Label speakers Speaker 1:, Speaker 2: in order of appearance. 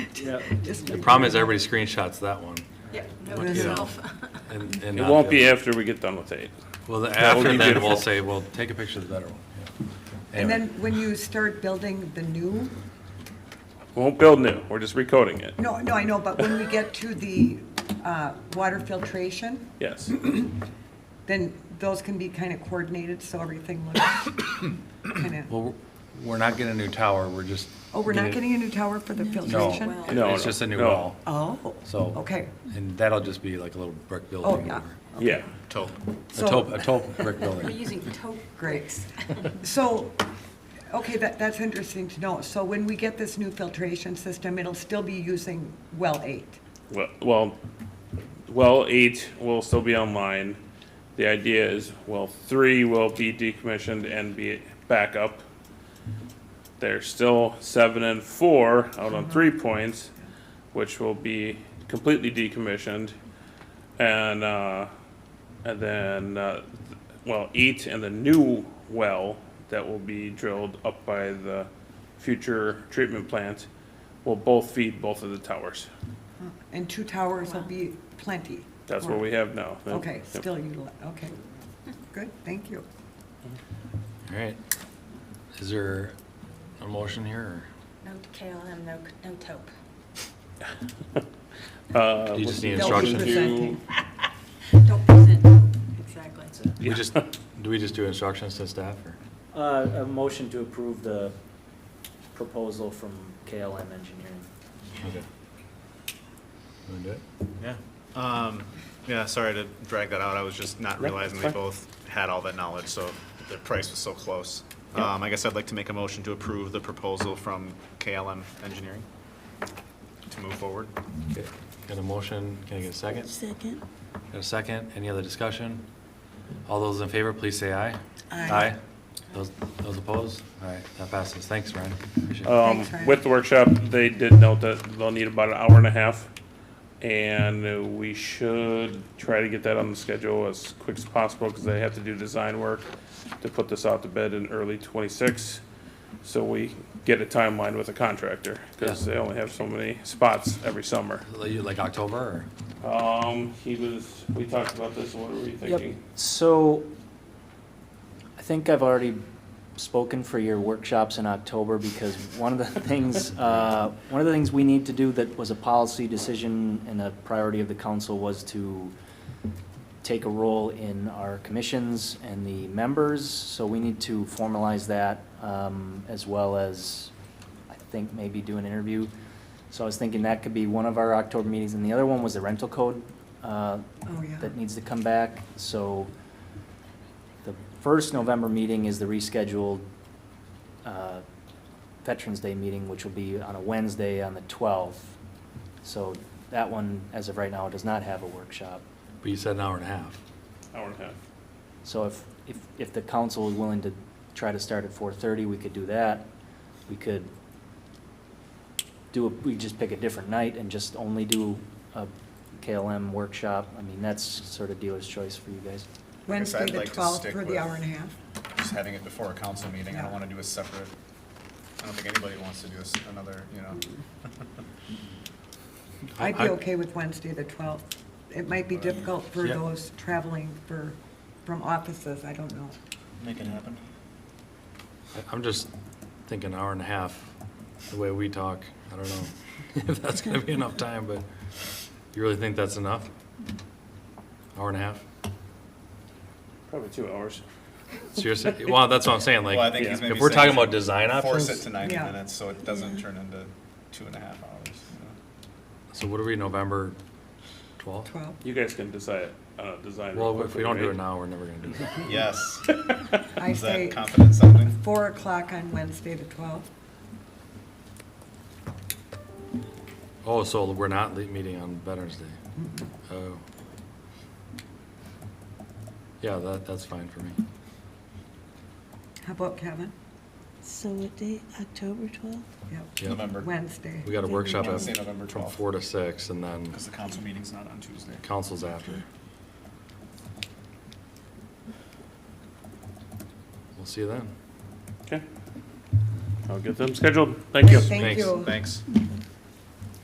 Speaker 1: Yeah.
Speaker 2: Just
Speaker 3: The problem is everybody screenshots that one.
Speaker 2: Yep.
Speaker 3: What- you know, and- and
Speaker 4: It
Speaker 3: not
Speaker 4: won't
Speaker 3: the
Speaker 4: be
Speaker 3: other.
Speaker 4: after we get done with eight.
Speaker 3: Well, the-
Speaker 4: That would
Speaker 3: after
Speaker 4: be
Speaker 3: then,
Speaker 4: beautiful.
Speaker 3: we'll say, well, take a picture of the better one. yeah.
Speaker 2: And
Speaker 3: Anyway.
Speaker 2: then when you start building the new,
Speaker 4: We won't build new, we're just recoding it,
Speaker 2: no, no, I know, but when we get to the uh, water filtration,
Speaker 4: yes.
Speaker 2: then those can be kind of coordinated, so everything looks kind of,
Speaker 3: Well, we're- we're not getting a new tower, we're just.
Speaker 2: oh, we're not getting a new tower for the
Speaker 3: No,
Speaker 2: filtration?
Speaker 3: it-
Speaker 4: No,
Speaker 3: it's
Speaker 4: no,
Speaker 3: just a new
Speaker 4: no.
Speaker 3: wall,
Speaker 2: Oh,
Speaker 3: so.
Speaker 2: okay.
Speaker 3: And that'll just be like a little brick
Speaker 2: Oh,
Speaker 3: building.
Speaker 2: yeah.
Speaker 3: or-
Speaker 4: Yeah,
Speaker 3: A taupe, a taupe brick
Speaker 5: We're
Speaker 3: building.
Speaker 5: using tote
Speaker 2: Great.
Speaker 5: bricks.
Speaker 2: So, okay, that, that's interesting to know. So when we get this new filtration system, it'll still be using well eight?
Speaker 4: Well- well, well, eight will still be online. The idea is, well, three will be decommissioned and be back up. There's still seven and four out on three points, which will be completely decommissioned. And, uh, and then, uh, th- well, eight and the new well that will be drilled up by the future treatment plant will both feed both of the towers.
Speaker 2: And two towers will be plenty?
Speaker 4: That's what we have now. Yep.
Speaker 2: Okay, still utilize, okay. Good, thank you.
Speaker 3: All right. Is there a motion here,
Speaker 5: No KLM, no, no taupe.
Speaker 4: Uh,
Speaker 3: or you just need
Speaker 2: They'll be
Speaker 3: instructions?
Speaker 2: presenting.
Speaker 5: Don't present taupe, exactly.
Speaker 3: We just, do we just do instructions to staff, or?
Speaker 1: Uh, a motion to approve the proposal from KLM Engineering.
Speaker 3: Okay. Want to do it?
Speaker 6: Yeah. Um, yeah, sorry to drag that out. I was just not
Speaker 4: Yeah,
Speaker 6: realizing
Speaker 4: that's
Speaker 6: they
Speaker 4: fine.
Speaker 6: both had all that knowledge, so the price was so close.
Speaker 4: Yeah.
Speaker 6: Um, I guess I'd like to make a motion to approve the proposal from KLM Engineering to move forward.
Speaker 3: Okay. Got a motion, can I get a second? Second. Got a second, any other discussion? All those in favor, please say aye.
Speaker 2: Aye.
Speaker 3: Those, those opposed? All right, that passes, thanks, Ryan, appreciate
Speaker 6: Uh,
Speaker 3: it.
Speaker 4: Um,
Speaker 2: Thanks, Ryan.
Speaker 4: with the workshop, they did note that they'll need about an hour and a half. And uh, we should try to get that on the schedule as quick as possible because they have to do design work to put this out to bid in early twenty-six. So we get a timeline with a contractor because
Speaker 3: Yeah.
Speaker 4: they only have so many spots every summer.
Speaker 3: Like- Like October, or?
Speaker 4: Um, he was, we talked about this, what were you
Speaker 1: Yep,
Speaker 4: thinking?
Speaker 1: so I think I've already spoken for your workshops in October because one of the things, uh, one of the things we need to do that was a policy decision and a priority of the council was to take a role in our commissions and the members, so we need to formalize that um, as well as, I think, maybe do an interview. So I was thinking that could be one of our October meetings, and the other one was the rental code uh,
Speaker 2: Oh, yeah.
Speaker 1: that needs to come back, so the first November meeting is the rescheduled uh, Veterans Day meeting, which will be on a Wednesday on the 12th. So that one, as of right now, does not have a workshop.
Speaker 3: But you said an hour and a half.
Speaker 4: Hour and a half.
Speaker 1: So if, if, if the council is willing to try to start at four thirty, we could do that. We could do, a we just pick a different night and just only do a KLM workshop. I mean, that's sort of dealer's choice for you guys.
Speaker 2: Wednesday,
Speaker 6: I'd
Speaker 2: the
Speaker 6: like to
Speaker 2: 12th,
Speaker 6: stick
Speaker 2: for the
Speaker 6: with-
Speaker 2: hour and a half?
Speaker 6: Just having it before a council meeting, I
Speaker 2: Yeah.
Speaker 6: don't want to do a separate, I don't think anybody wants to do this another, you know.
Speaker 2: I'd be
Speaker 3: I-
Speaker 2: okay with Wednesday, the 12th. It might be difficult for
Speaker 3: Yeah.
Speaker 2: those traveling for, from offices, I don't know.
Speaker 6: Make it happen.
Speaker 3: I- I'm just thinking hour and a half, the way we talk, I don't know if that's gonna be enough time, but you really think that's enough? Hour and a half?
Speaker 4: Probably two hours.
Speaker 3: Seriously? Well, that's what I'm saying,
Speaker 6: Well, I
Speaker 3: like,
Speaker 6: think he's
Speaker 4: Yeah.
Speaker 6: maybe
Speaker 3: if we're
Speaker 6: saying
Speaker 3: talking
Speaker 6: we
Speaker 3: about design
Speaker 6: should
Speaker 3: options.
Speaker 6: Force it to ninety
Speaker 2: Yeah.
Speaker 6: minutes, so it doesn't turn into two and a half hours. you know.
Speaker 3: So what are we, November 12th?
Speaker 2: 12th,
Speaker 4: You guys can decide, uh, design. real
Speaker 3: Well, if we
Speaker 4: quickly,
Speaker 3: don't do
Speaker 4: right?
Speaker 3: it now, we're never gonna do it.
Speaker 6: Yes.
Speaker 2: Mm-hmm. I
Speaker 6: Is that
Speaker 2: say
Speaker 6: confident something?
Speaker 2: 4 o'clock on Wednesday, the 12th.
Speaker 3: Oh, so we're not le- meeting on Veterans Day? Oh. Yeah, that, that's fine for me.
Speaker 2: How about Kevin?
Speaker 7: So what date? October 12th?
Speaker 2: Yep,
Speaker 3: Yeah.
Speaker 6: November.
Speaker 2: Wednesday.
Speaker 3: We got a workshop at,
Speaker 6: Wednesday, November
Speaker 3: from
Speaker 6: 12th.
Speaker 3: four to six, and then
Speaker 6: Because the council meeting's not on Tuesday.
Speaker 3: council's after. We'll see you then.
Speaker 4: Okay. I'll get them scheduled. Thank you.
Speaker 2: Thank
Speaker 3: Thanks.
Speaker 2: you.
Speaker 6: Thanks.